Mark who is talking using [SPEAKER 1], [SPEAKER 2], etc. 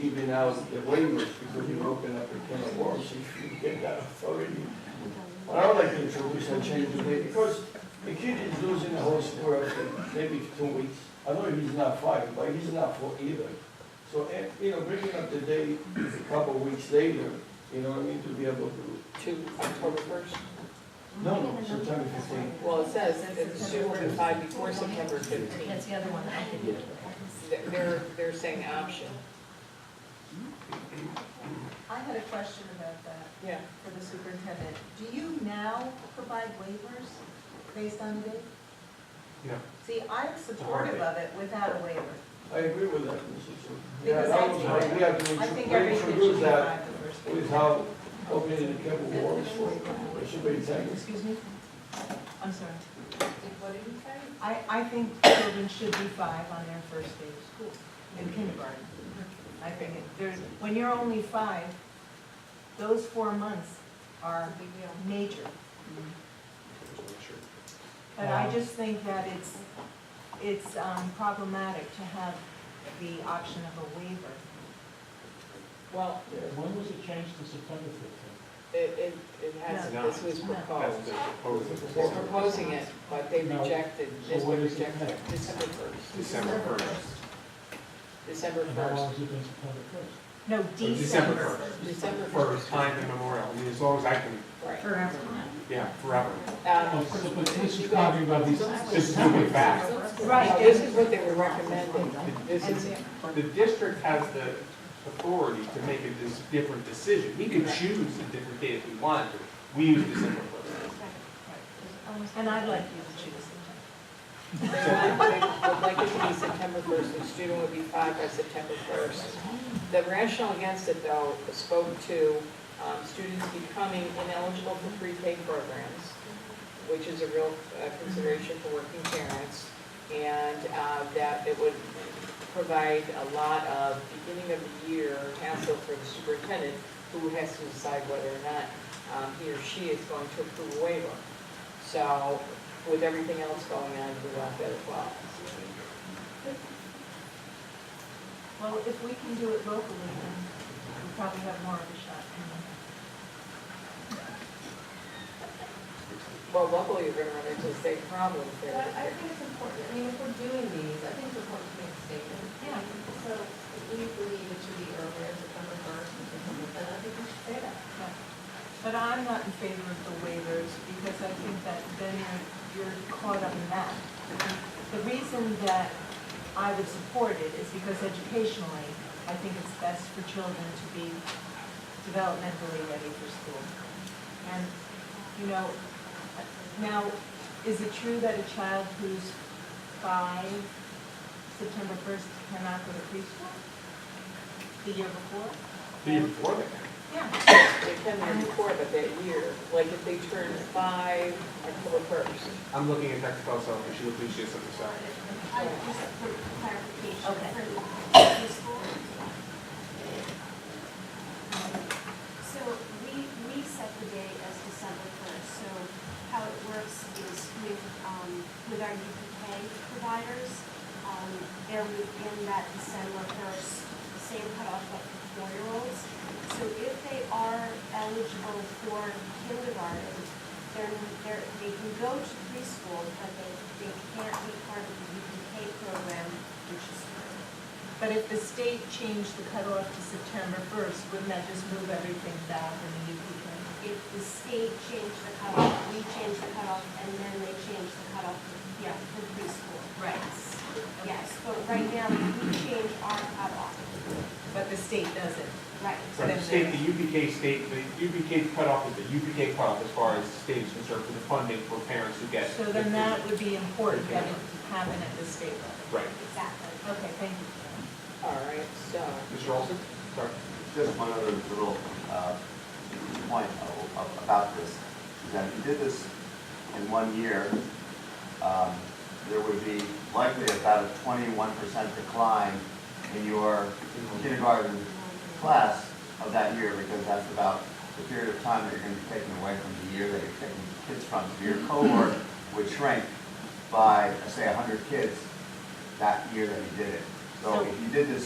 [SPEAKER 1] even out the waivers, because you open up a can of worms if you get that authority. What I would like to introduce and change the date, because the kid is losing the whole sport after maybe two weeks. I know he's not five, but he's not four either. So, eh, you know, bringing up the date a couple of weeks later, you know, what I mean, to be able to,
[SPEAKER 2] to October first?
[SPEAKER 1] no, no, September fifteenth.
[SPEAKER 2] Well, it says it's due in five before September
[SPEAKER 3] That's
[SPEAKER 2] fifteenth.
[SPEAKER 3] the other one that I didn't.
[SPEAKER 2] They're, they're saying option.
[SPEAKER 4] I had a question about that
[SPEAKER 2] Yeah.
[SPEAKER 4] for the superintendent. Do you now provide waivers based on date?
[SPEAKER 1] Yeah.
[SPEAKER 4] See, I'm supportive of it without a waiver.
[SPEAKER 1] I agree with that, Mrs. Chu. Yeah,
[SPEAKER 4] Because
[SPEAKER 1] that
[SPEAKER 4] I
[SPEAKER 1] was
[SPEAKER 4] think-
[SPEAKER 1] how we have to
[SPEAKER 4] I think
[SPEAKER 1] intro-
[SPEAKER 4] everything should
[SPEAKER 1] introduce
[SPEAKER 4] be
[SPEAKER 1] that
[SPEAKER 4] allowed the first
[SPEAKER 1] with
[SPEAKER 4] week.
[SPEAKER 1] how opening the can of worms for, it should be taken.
[SPEAKER 4] Excuse me? I'm sorry.
[SPEAKER 2] What did you say?
[SPEAKER 4] I, I think children should be five on their first day of school, in kindergarten. I think it, there's, when you're only five, those four months are major. But I just think that it's, it's um, problematic to have the option of a waiver.
[SPEAKER 2] Well,
[SPEAKER 5] When was it changed to September fifteenth?
[SPEAKER 2] it, it, it has, this was proposed. They're proposing it, but they
[SPEAKER 5] No.
[SPEAKER 2] rejected, this
[SPEAKER 5] So what
[SPEAKER 2] one
[SPEAKER 5] is it
[SPEAKER 2] rejected
[SPEAKER 5] now?
[SPEAKER 2] December first,
[SPEAKER 6] December first.
[SPEAKER 2] December
[SPEAKER 5] And how long
[SPEAKER 2] first,
[SPEAKER 5] has it been September first?
[SPEAKER 4] No,
[SPEAKER 6] December
[SPEAKER 4] December.
[SPEAKER 6] first.
[SPEAKER 2] December
[SPEAKER 6] For
[SPEAKER 2] first,
[SPEAKER 6] time immemorial, I mean, as long as I can,
[SPEAKER 2] right.
[SPEAKER 3] Forever.
[SPEAKER 6] yeah, forever.
[SPEAKER 2] Um,
[SPEAKER 5] But but this is talking about these,
[SPEAKER 6] Just
[SPEAKER 5] this
[SPEAKER 6] moving back.
[SPEAKER 2] now,
[SPEAKER 4] Right,
[SPEAKER 2] This is what they were recommending, this is,
[SPEAKER 6] The district has the authority to make a dis- different decision. We can choose a different date if we wanted to. We use December first.
[SPEAKER 4] and I'd like you to choose it.
[SPEAKER 2] they would like it to be September first, the student would be five by September first. The rationale against it, though, spoke to um, students becoming ineligible for pre-K programs, which is a real uh, consideration for working parents, and uh, that it would provide a lot of beginning of the year hassle for the superintendent, who has to decide whether or not um, he or she is going to approve a waiver. So with everything else going on, we want that as well.
[SPEAKER 4] Well, if we can do it locally, then we probably have more of a shot.
[SPEAKER 2] Well, luckily, you're gonna run into the same problems
[SPEAKER 7] But
[SPEAKER 2] there.
[SPEAKER 7] I think it's important, I mean, if we're doing these, I think it's important to make a statement.
[SPEAKER 4] Yeah.
[SPEAKER 7] So if we believe it should be earlier, September first, then I think we should say that.
[SPEAKER 4] But I'm not in favor of the waivers because I think that then you're, you're caught up in that. The reason that I would support it is because educationally, I think it's best for children to be developmentally ready for school. And, you know, now, is it true that a child who's five, September first, cannot go to preschool? The year before?
[SPEAKER 6] The year before that.
[SPEAKER 4] Yeah.
[SPEAKER 2] They come in before, but that year, like if they turn five, October first.
[SPEAKER 6] I'm looking at Dr. Costello, and she appreciates it, so.
[SPEAKER 8] I just for clarification,
[SPEAKER 4] Okay.
[SPEAKER 8] for the high school. So we, we set the date as December first, so how it works is with, um, with our UPK providers, um, they're within that December first, same cutoff but for four-year-olds. So if they are eligible for kindergarten, they're, they're, they can go to preschool, but they, they can't be part of the UPK program, which is free.
[SPEAKER 4] But if the state changed the cutoff to September first, wouldn't that just move everything back in the UPK?
[SPEAKER 8] If the state changed the cutoff, we changed the cutoff, and then they changed the cutoff, yeah, for preschool.
[SPEAKER 4] Right.
[SPEAKER 8] Yes, but right now, we change our cutoff.
[SPEAKER 4] But the state doesn't.
[SPEAKER 8] Right.
[SPEAKER 6] So the state, the UPK state, the UPK cutoff is the UPK cutoff as far as the state is concerned for the funding for parents who get.
[SPEAKER 4] So then that would be important that it happen at the state level.
[SPEAKER 6] Right.
[SPEAKER 8] Exactly.
[SPEAKER 4] Okay, thank you.
[SPEAKER 2] All right, so,
[SPEAKER 6] Mr. Olson? Sorry.
[SPEAKER 9] Just one other little uh, point a- a- about this, is that if you did this in one year, um, there would be likely about a 21% decline in your kindergarten class of that year, because that's about the period of time that you're going to be taking away from the year that you're taking kids from. So your cohort would shrink by, say, 100 kids that year that you did it. So if you did this